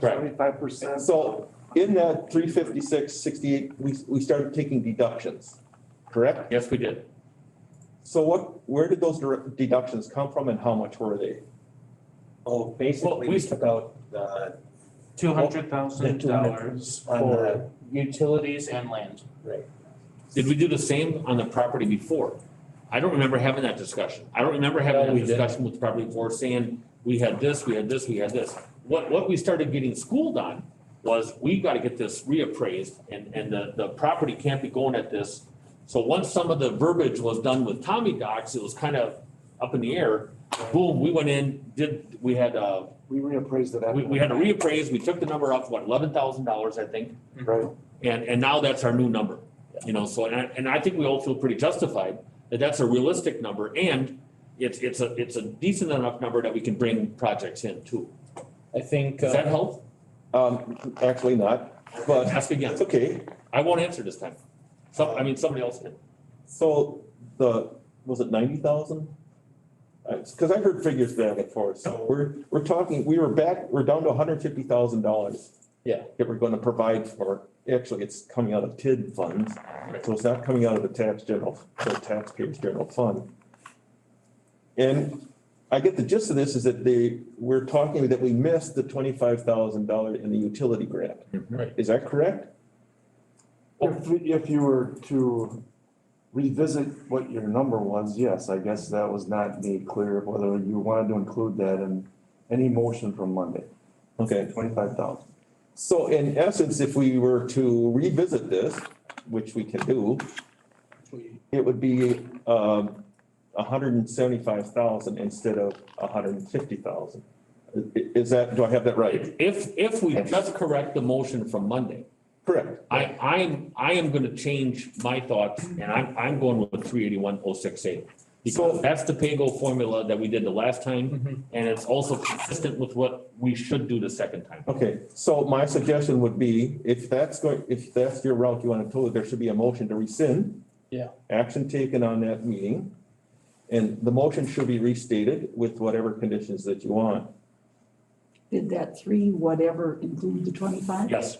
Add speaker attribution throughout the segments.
Speaker 1: Correct.
Speaker 2: Seventy-five percent.
Speaker 1: So in that three fifty-six, sixty-eight, we, we started taking deductions, correct?
Speaker 3: Yes, we did.
Speaker 1: So what, where did those dir- deductions come from and how much were they?
Speaker 4: Oh, basically, we
Speaker 3: we-
Speaker 4: took out the,
Speaker 3: Two hundred thousand dollars
Speaker 4: on
Speaker 3: for
Speaker 4: the,
Speaker 3: utilities and land.
Speaker 4: right,
Speaker 3: Did we do the same on the property before? I don't remember having that discussion. I don't remember
Speaker 4: No,
Speaker 3: having
Speaker 4: we
Speaker 3: that
Speaker 4: didn't.
Speaker 3: discussion with property before saying, we had this, we had this, we had this. What, what we started getting schooled on was we gotta get this reappraised and, and the, the property can't be going at this. So once some of the verbiage was done with Tommy Docs, it was kind of up in the air. Boom, we went in, did, we had, uh,
Speaker 2: We reappraised it.
Speaker 3: we, we had to reappraise, we took the number up, what, eleven thousand dollars, I think.
Speaker 2: Right.
Speaker 3: And, and now that's our new number, you know, so, and I, and I think we all feel pretty justified that that's a realistic number and it's, it's a, it's a decent enough number that we can bring projects in too.
Speaker 4: I think.
Speaker 3: Does that
Speaker 4: uh,
Speaker 3: help?
Speaker 1: Um, actually not, but
Speaker 3: Ask again.
Speaker 1: it's okay.
Speaker 3: I won't answer this time. Some, I mean, somebody else can.
Speaker 1: So the, was it ninety thousand? Uh, Cause I've heard figures back and forth. So we're, we're talking, we were back, we're down to hundred fifty thousand dollars.
Speaker 4: Yeah.
Speaker 1: That we're gonna provide for, actually, it's coming out of TID funds, so it's not coming out of the tax general, the taxpayers general fund. And I get the gist of this is that they, we're talking that we missed the twenty-five thousand dollar in the utility grant.
Speaker 4: Right.
Speaker 1: Is that correct?
Speaker 3: oh.
Speaker 2: If, we- if you were to revisit what your number was, yes, I guess that was not made clear whether you wanted to include that in any motion from Monday,
Speaker 1: Okay.
Speaker 2: twenty-five thousand.
Speaker 1: So in essence, if we were to revisit this, which we can do, it would be um hundred and seventy-five thousand instead of hundred and fifty thousand. Is that, do I have that right?
Speaker 3: If, if we just correct the motion from Monday,
Speaker 1: Correct.
Speaker 3: I, I'm, I am gonna change my thoughts and I'm, I'm going with three eighty-one oh six eight. Because that's the pay-go formula that we did the last
Speaker 5: Mm-hmm.
Speaker 3: time, and it's also consistent with what we should do the second time.
Speaker 1: Okay, so my suggestion would be, if that's going, if that's your route you wanna go, there should be a motion to rescind.
Speaker 4: Yeah.
Speaker 1: Action taken on that meeting. And the motion should be restated with whatever conditions that you want.
Speaker 5: Did that three whatever include the twenty-five?
Speaker 3: Yes,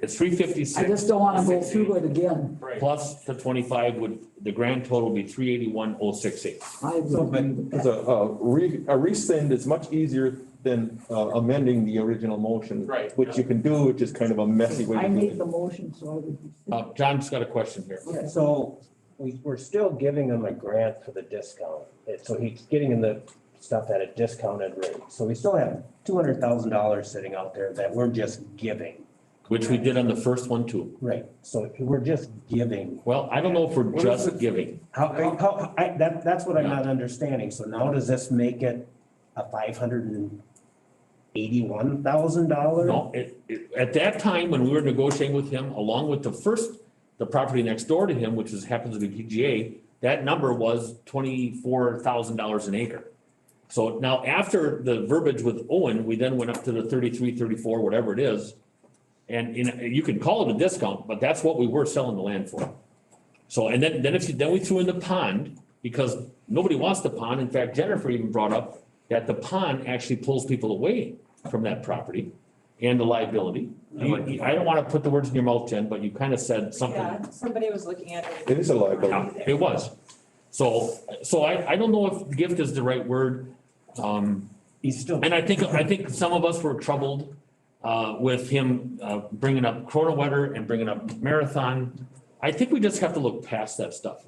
Speaker 3: it's three
Speaker 5: I
Speaker 3: fifty-six
Speaker 5: just don't wanna go through it again.
Speaker 3: plus the twenty-five would, the grand total would be three eighty-one oh six eight.
Speaker 5: I would
Speaker 1: So,
Speaker 5: agree
Speaker 1: but,
Speaker 5: with
Speaker 1: because
Speaker 5: that.
Speaker 1: a, a re, a rescind is much easier than uh, amending the original motion.
Speaker 3: Right.
Speaker 1: Which you can do, which is kind of a messy way
Speaker 5: I
Speaker 1: to do
Speaker 5: made
Speaker 1: it.
Speaker 5: the motion, so I would.
Speaker 3: Uh, John's got a question here.
Speaker 5: Okay.
Speaker 4: So we, we're still giving him a grant for the discount. And So he's getting the stuff at a discounted rate. So we still have two hundred thousand dollars sitting out there that we're just giving.
Speaker 3: Which we did on the first one too.
Speaker 4: Right. So we're just giving.
Speaker 3: Well, I don't know if we're
Speaker 2: What is
Speaker 3: just
Speaker 2: it?
Speaker 3: giving.
Speaker 4: How, how, I, that, that's what I'm not understanding. So now does this make it a five hundred and eighty-one thousand dollar?
Speaker 3: No, it, it, at that time, when we were negotiating with him, along with the first, the property next door to him, which is, happens to be PGA, that number was twenty-four thousand dollars an acre. So now after the verbiage with Owen, we then went up to the thirty-three, thirty-four, whatever it is. And, and you can call it a discount, but that's what we were selling the land for. So, and then, then if you, then we threw in the pond, because nobody wants the pond. In fact, Jennifer even brought up that the pond actually pulls people away from that property and the liability. You- you- I don't wanna put the words in your mouth, Jen, but you kinda said something.
Speaker 6: Yeah, somebody was looking at it.
Speaker 1: It is a liability.
Speaker 3: Yeah, It was. So, so I, I don't know if gift is the right word. Um,
Speaker 4: He's still.
Speaker 3: and I think, I think some of us were troubled uh, with him uh, bringing up Corona weather and bringing up marathon. I think we just have to look past that stuff.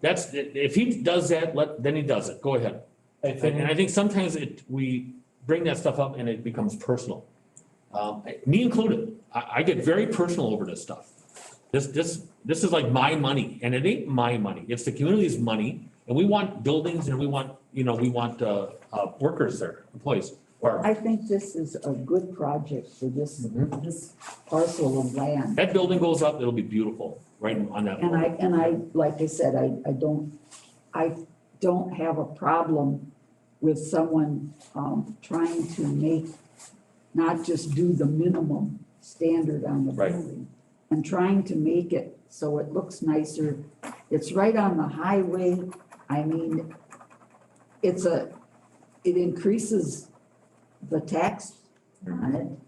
Speaker 3: That's, if he does that, let, then he does it. Go ahead.
Speaker 4: I
Speaker 3: And
Speaker 4: think,
Speaker 3: and I think sometimes it, we bring that stuff up and it becomes personal. Um, me included, I, I get very personal over this stuff. This, this, this is like my money and it ain't my money. It's the community's money. And we want buildings and we want, you know, we want, uh, uh, workers there, employees. Or
Speaker 5: I think this is a good project for this,
Speaker 1: mm-hmm.
Speaker 5: this parcel of land.
Speaker 3: that building goes up, it'll be beautiful, right on that.
Speaker 5: And I, and I, like I said, I, I don't, I don't have a problem with someone, um, trying to make, not just do the minimum standard on the
Speaker 3: Right.
Speaker 5: building. And trying to make it so it looks nicer. It's right on the highway. I mean, it's a, it increases the tax on it.